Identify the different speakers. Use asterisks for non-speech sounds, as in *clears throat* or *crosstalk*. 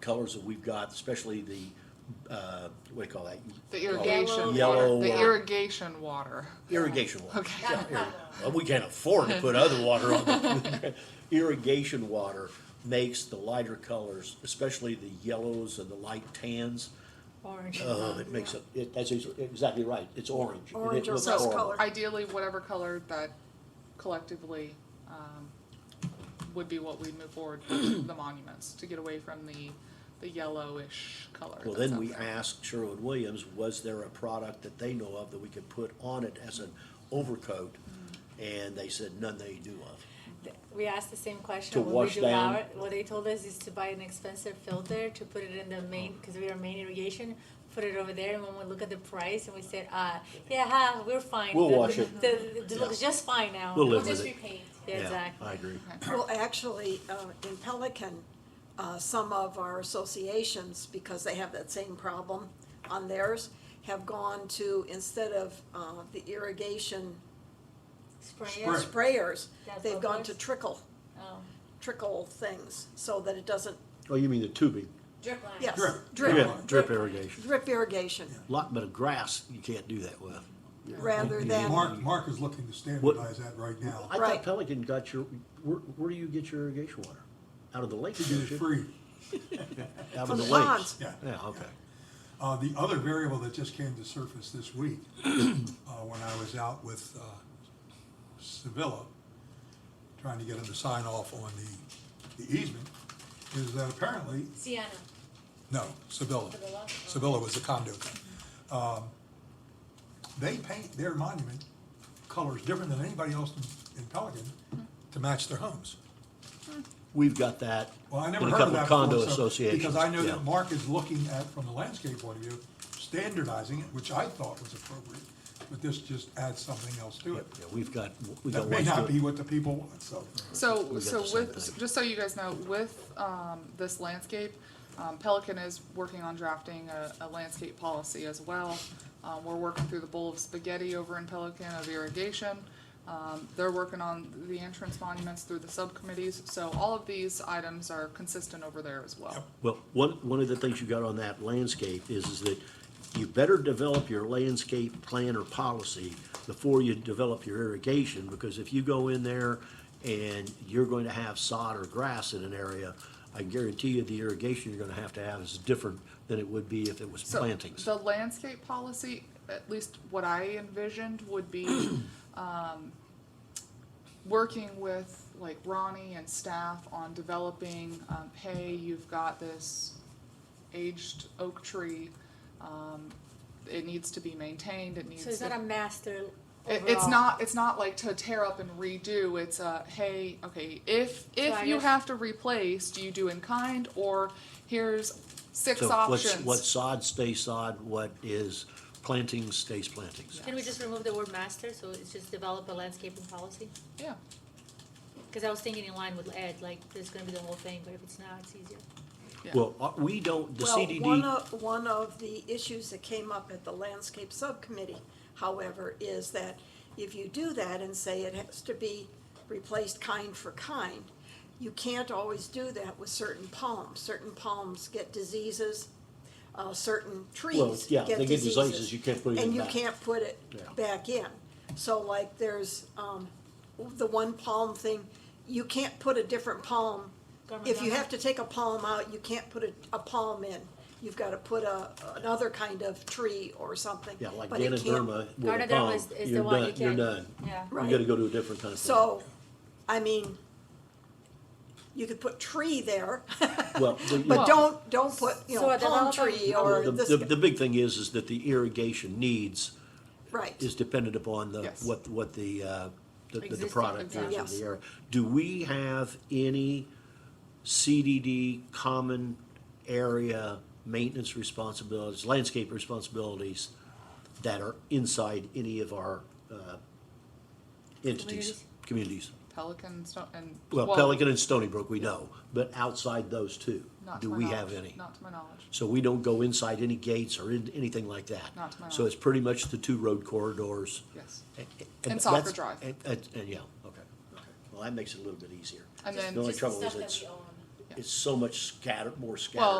Speaker 1: colors that we've got, especially the, uh, what do you call that?
Speaker 2: The irrigation
Speaker 1: Yellow
Speaker 2: water, the
Speaker 1: or-
Speaker 2: irrigation water.
Speaker 1: Irrigation water.
Speaker 2: Okay.
Speaker 1: Yeah, irri- well, we can't afford to put other water on. the- *laughs* Irrigation water makes the lighter colors, especially the yellows and the light tans.
Speaker 3: Orange.
Speaker 1: Oh, it makes it, it, that's ex- exactly right, it's orange. and it
Speaker 3: Orange or
Speaker 1: looks
Speaker 3: rose
Speaker 1: horrible.
Speaker 3: color.
Speaker 2: Ideally, whatever color that collectively um, would be what we'd move forward
Speaker 1: *clears throat*
Speaker 2: with the monuments, to get away from the, the yellowish color.
Speaker 1: Well,
Speaker 2: that's
Speaker 1: then
Speaker 2: out
Speaker 1: we
Speaker 2: there.
Speaker 1: asked Sherwin-Williams, was there a product that they know of that we could put on it as an overcoat?
Speaker 3: Mm.
Speaker 1: And they said none they knew of.
Speaker 3: We asked the same
Speaker 1: To
Speaker 3: question when we
Speaker 1: wash
Speaker 3: do our,
Speaker 1: down.
Speaker 3: what they told us is to buy an expensive filter to put it in the main,
Speaker 1: Oh.
Speaker 3: because we are main irrigation, put it over there, and when we look at the price, and we said, uh, yeah, ha, we're fine.
Speaker 1: We'll
Speaker 3: The-
Speaker 1: wash it.
Speaker 3: The, the- it looks just fine now.
Speaker 1: We'll
Speaker 4: We'll
Speaker 1: live
Speaker 4: just
Speaker 1: with it.
Speaker 4: repaint.
Speaker 3: Yeah,
Speaker 1: I
Speaker 3: Exactly.
Speaker 1: agree.
Speaker 5: Well, actually, uh, in Pelican, uh, some of our associations, because they have that same problem on theirs, have gone to, instead of uh, the irrigation
Speaker 3: Spray it.
Speaker 5: sprayers,
Speaker 3: That's
Speaker 5: they've
Speaker 3: what
Speaker 5: gone
Speaker 3: it
Speaker 5: to
Speaker 3: is.
Speaker 5: trickle,
Speaker 3: Oh,
Speaker 5: trickle things, so that it doesn't,
Speaker 1: Oh, you mean the tubing?
Speaker 4: Drip line.
Speaker 5: yes,
Speaker 1: Drip.
Speaker 5: drip,
Speaker 1: Drip irrigation.
Speaker 5: drip irrigation,
Speaker 1: Lot bit of grass you can't do that with.
Speaker 5: rather than,
Speaker 6: Mark, Mark is looking to standardize that right now.
Speaker 1: I thought
Speaker 5: Right.
Speaker 1: Pelican got your, where, where do you get your irrigation water? Out of the lake,
Speaker 6: To get
Speaker 1: don't
Speaker 6: it
Speaker 1: you?
Speaker 6: free,
Speaker 1: Out
Speaker 5: From
Speaker 1: of the
Speaker 5: the
Speaker 1: lakes?
Speaker 5: ponds.
Speaker 6: yeah.
Speaker 1: Yeah, okay.
Speaker 6: Uh, the other variable that just came to surface this week, *clears throat* uh, when I was out with, uh, Sevilla, trying to get him to sign off on the, the easement, is that apparently,
Speaker 4: Sienna.
Speaker 6: no, Sevilla.
Speaker 4: Sevilla?
Speaker 6: Sevilla was the conduit. Um, they paint their monument colors different than anybody else in- in Pelican to match their homes.
Speaker 1: We've got that
Speaker 6: Well, I
Speaker 1: in a
Speaker 6: never heard of
Speaker 1: couple
Speaker 6: that
Speaker 1: of condo
Speaker 6: before, so-
Speaker 1: associations.
Speaker 6: Because I know
Speaker 1: yeah.
Speaker 6: that Mark is looking at, from the landscape point of view, standardizing it, which I thought was appropriate, but this just adds something else to it.
Speaker 1: Yeah, we've got, we've got
Speaker 6: That may
Speaker 1: one
Speaker 6: not
Speaker 1: good-
Speaker 6: be what the people want, so.
Speaker 1: We
Speaker 2: So,
Speaker 1: got
Speaker 2: so
Speaker 1: the same
Speaker 2: with,
Speaker 1: thing.
Speaker 2: just so you guys know, with, um, this landscape, um, Pelican is working on drafting a, a landscape policy as well. Um, we're working through the bowl of spaghetti over in Pelican of irrigation. Um, they're working on the entrance monuments through the subcommittees, so all of these items are consistent over there as well.
Speaker 1: Well, one, one of the things you got on that landscape is, is that you better develop your landscape plan or policy before you develop your irrigation, because if you go in there and you're going to have sod or grass in an area, I guarantee you the irrigation you're gonna have to have is different than it would be if it was
Speaker 2: So
Speaker 1: plantings.
Speaker 2: The landscape policy, at least what I envisioned,
Speaker 1: *clears throat*
Speaker 2: would be, um, working with like Ronnie and staff on developing, um, hey, you've got this aged oak tree, um, it needs to be maintained, it needs
Speaker 3: So it's
Speaker 2: to-
Speaker 3: not a master
Speaker 2: it-
Speaker 3: overall.
Speaker 2: it's not, it's not like to tear up and redo, it's a, hey, okay, if,
Speaker 3: I
Speaker 2: if you
Speaker 3: guess-
Speaker 2: have to replace, do you do in kind, or here's six
Speaker 1: So what's-
Speaker 2: options?
Speaker 1: What sod stays sod, what is plantings stays plantings.
Speaker 3: Can we just remove the word master, so it's just develop a landscaping policy?
Speaker 2: Yeah.
Speaker 3: Because I was thinking in line with Ed, like, there's gonna be the whole thing, but if it's not, it's easier.
Speaker 2: Yeah.
Speaker 1: Well, uh, we don't, the
Speaker 5: well, one
Speaker 1: CDD,
Speaker 5: of, one of the issues that came up at the landscape subcommittee, however, is that if you do that and say it has to be replaced kind for kind, you can't always do that with certain palms. Certain palms get diseases, uh, certain trees
Speaker 1: yeah,
Speaker 5: get
Speaker 1: they get
Speaker 5: diseases.
Speaker 1: diseases, you can't put it in
Speaker 5: And you
Speaker 1: back.
Speaker 5: can't put it
Speaker 1: Yeah.
Speaker 5: back in. So like, there's, um, the one palm thing, you can't put a different palm. If you have to take a palm out, you can't put a, a palm in. You've gotta put a, another kind of tree or something.
Speaker 1: yeah, like
Speaker 5: but it can't-
Speaker 1: Ganoderma with a
Speaker 3: Ganoderma
Speaker 1: palm,
Speaker 3: is- is the
Speaker 1: you're
Speaker 3: one you
Speaker 1: done, you're
Speaker 3: can't-
Speaker 1: done.
Speaker 3: Yeah.
Speaker 1: You gotta go to a different kind of. plant.
Speaker 5: So, I mean, you could put tree there, *laughs*
Speaker 1: Well, the-
Speaker 5: but
Speaker 1: the-
Speaker 5: don't, don't put, you
Speaker 3: So
Speaker 5: know,
Speaker 3: a
Speaker 5: palm
Speaker 3: developer-
Speaker 5: tree or
Speaker 1: the,
Speaker 5: this,
Speaker 1: the, the big thing is, is that the irrigation needs
Speaker 5: right.
Speaker 1: is dependent upon the,
Speaker 2: Yes.
Speaker 1: what, what the, uh, the, the
Speaker 3: Existing,
Speaker 1: product is in
Speaker 5: exactly.
Speaker 1: the area. Do we have any CDD common area maintenance responsibilities, landscape responsibilities that are inside any of our, uh, entities, communities?
Speaker 2: Pelicans don't, and.
Speaker 1: Well, Pelican and Stony Brook, we know, but outside those two,
Speaker 2: not to
Speaker 1: do
Speaker 2: my
Speaker 1: we
Speaker 2: knowledge.
Speaker 1: have any?
Speaker 2: Not to my knowledge.
Speaker 1: So we don't go inside any gates or in, anything like that?
Speaker 2: Not to my
Speaker 1: So it's pretty much the two road corridors?
Speaker 2: Yes.
Speaker 1: And-
Speaker 2: And soccer
Speaker 1: that's-
Speaker 2: drive.
Speaker 1: And, and- and, yeah, okay, okay. Well, that makes it a little bit easier.
Speaker 2: And then
Speaker 1: The only
Speaker 4: Just the
Speaker 1: trouble is
Speaker 4: stuff that
Speaker 1: it's,
Speaker 4: we own.
Speaker 1: it's so much scattered, more
Speaker 2: Well,
Speaker 1: scattered.